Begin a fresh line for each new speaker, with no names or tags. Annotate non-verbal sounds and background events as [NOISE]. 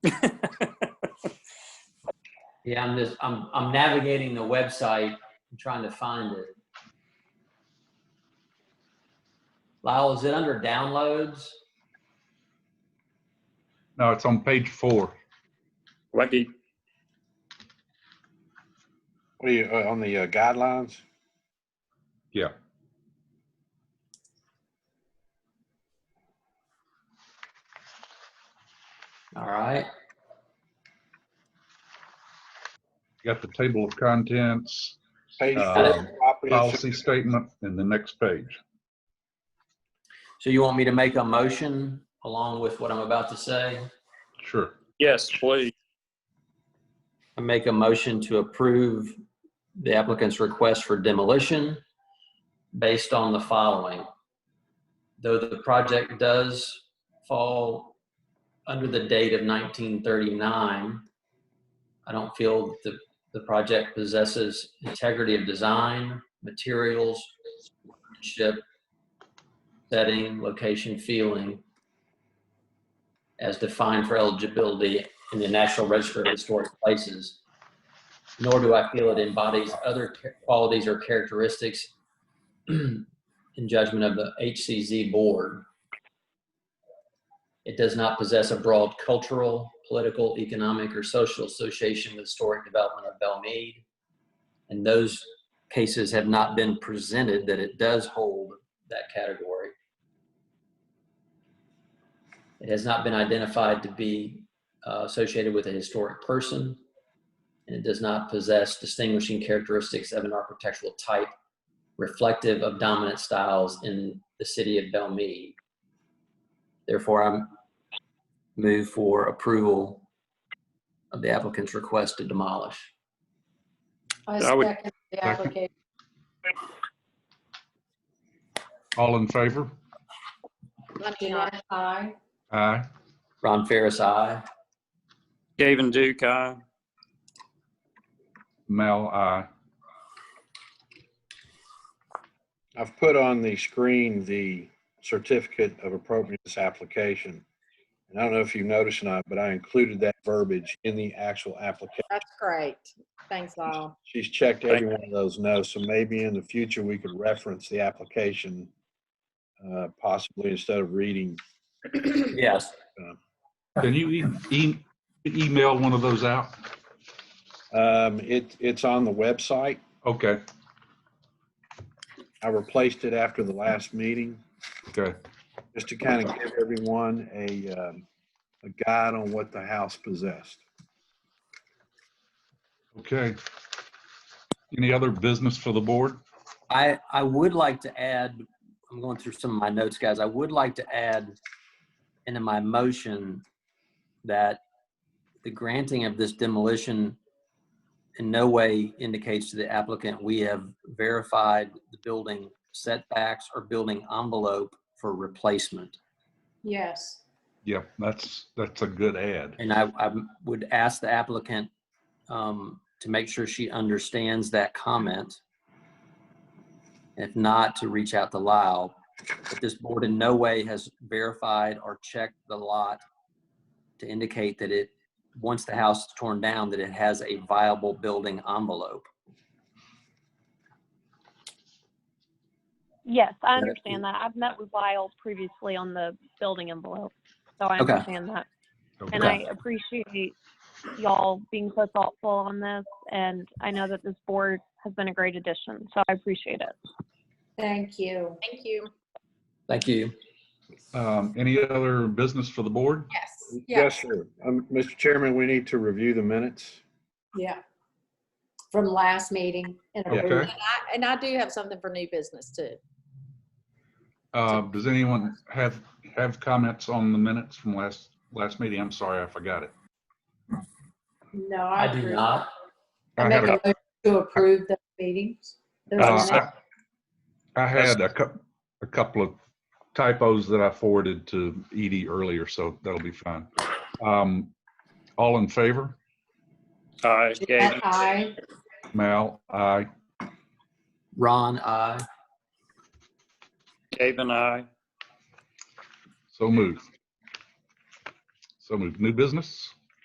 Yeah, I'm just, I'm, I'm navigating the website and trying to find it. Lyle, is it under downloads?
No, it's on page four.
Lucky.
What are you, uh, on the uh, guidelines?
Yeah.
All right.
You Got the table of contents,
Page
Uh,
four, property
policy
insurance.
statement, and the next page.
So you want me to make a motion along with what I'm about to say?
Sure.
Yes, please.
I make a motion to approve the applicant's request for demolition based on the following. Though the project does fall under the date of 1939, I don't feel that the, the project possesses integrity of design, materials, ship, setting, location, feeling, as defined for eligibility in the National Register of Historic Places, nor do I feel it embodies other ca- qualities or characteristics [CLEARS THROAT] in judgment of the HCZ Board. It does not possess a broad cultural, political, economic, or social association with historic development of Belmead. And those cases have not been presented that it does hold that category. It has not been identified to be uh, associated with a historic person, and it does not possess distinguishing characteristics of an architectural type reflective of dominant styles in the city of Belmead. Therefore, I move for approval of the applicant's request to demolish.
I
I would-
second the application.
All in favor?
Jeanette, aye.
Aye.
Ron Ferris, aye.
Gavin Duke, aye.
Mal, aye.
I've put on the screen the certificate of appropriateness application. And I don't know if you noticed or not, but I included that verbiage in the actual application.
That's great. Thanks, all.
She's checked every one of those notes, so maybe in the future we could reference the application uh, possibly instead of reading.
Yes.
Can you e- e- email one of those out?
Um, It, it's on the website.
Okay,
I replaced it after the last meeting.
okay.
just to kind of give everyone a, um, a guide on what the house possessed.
Okay. Any other business for the board?
I, I would like to add, I'm going through some of my notes, guys. I would like to add into my motion that the granting of this demolition in no way indicates to the applicant we have verified the building setbacks or building envelope for replacement.
Yes.
Yeah, that's, that's a good ad.
And I, I would ask the applicant um, to make sure she understands that comment. If not, to reach out to Lyle. But this board in no way has verified or checked the lot to indicate that it, once the house is torn down, that it has a viable building envelope.
Yes, I
That-
understand that. I've met with Lyle previously on the building envelope, so I
Okay.
understand that. And
Okay.
I appreciate y'all being so thoughtful on this, and I know that this board has been a great addition, so I appreciate it.
Thank you. Thank you.
Thank you.
Um, Any other business for the board?
Yes.
Yes, sir. Um, Mr. Chairman, we need to review the minutes.
Yeah. From last meeting. in a
Okay.
room. And I- and I do have something for new business too.
Uh, Does anyone have, have comments on the minutes from last, last meeting? I'm sorry, I forgot it.
No,
I
I
do
approve.
not.
I
I
make
had
a
a-
motion to approve the meetings. Those
Uh,
minutes.
I I had a cou- a couple of typos that I forwarded to Edie earlier, so that'll be fine. Um, All in favor?
Aye.
Jeanette,
Gavin.
aye.
Mal, aye.
Ron, I.
Gavin, aye.
So moved. So moved. New business?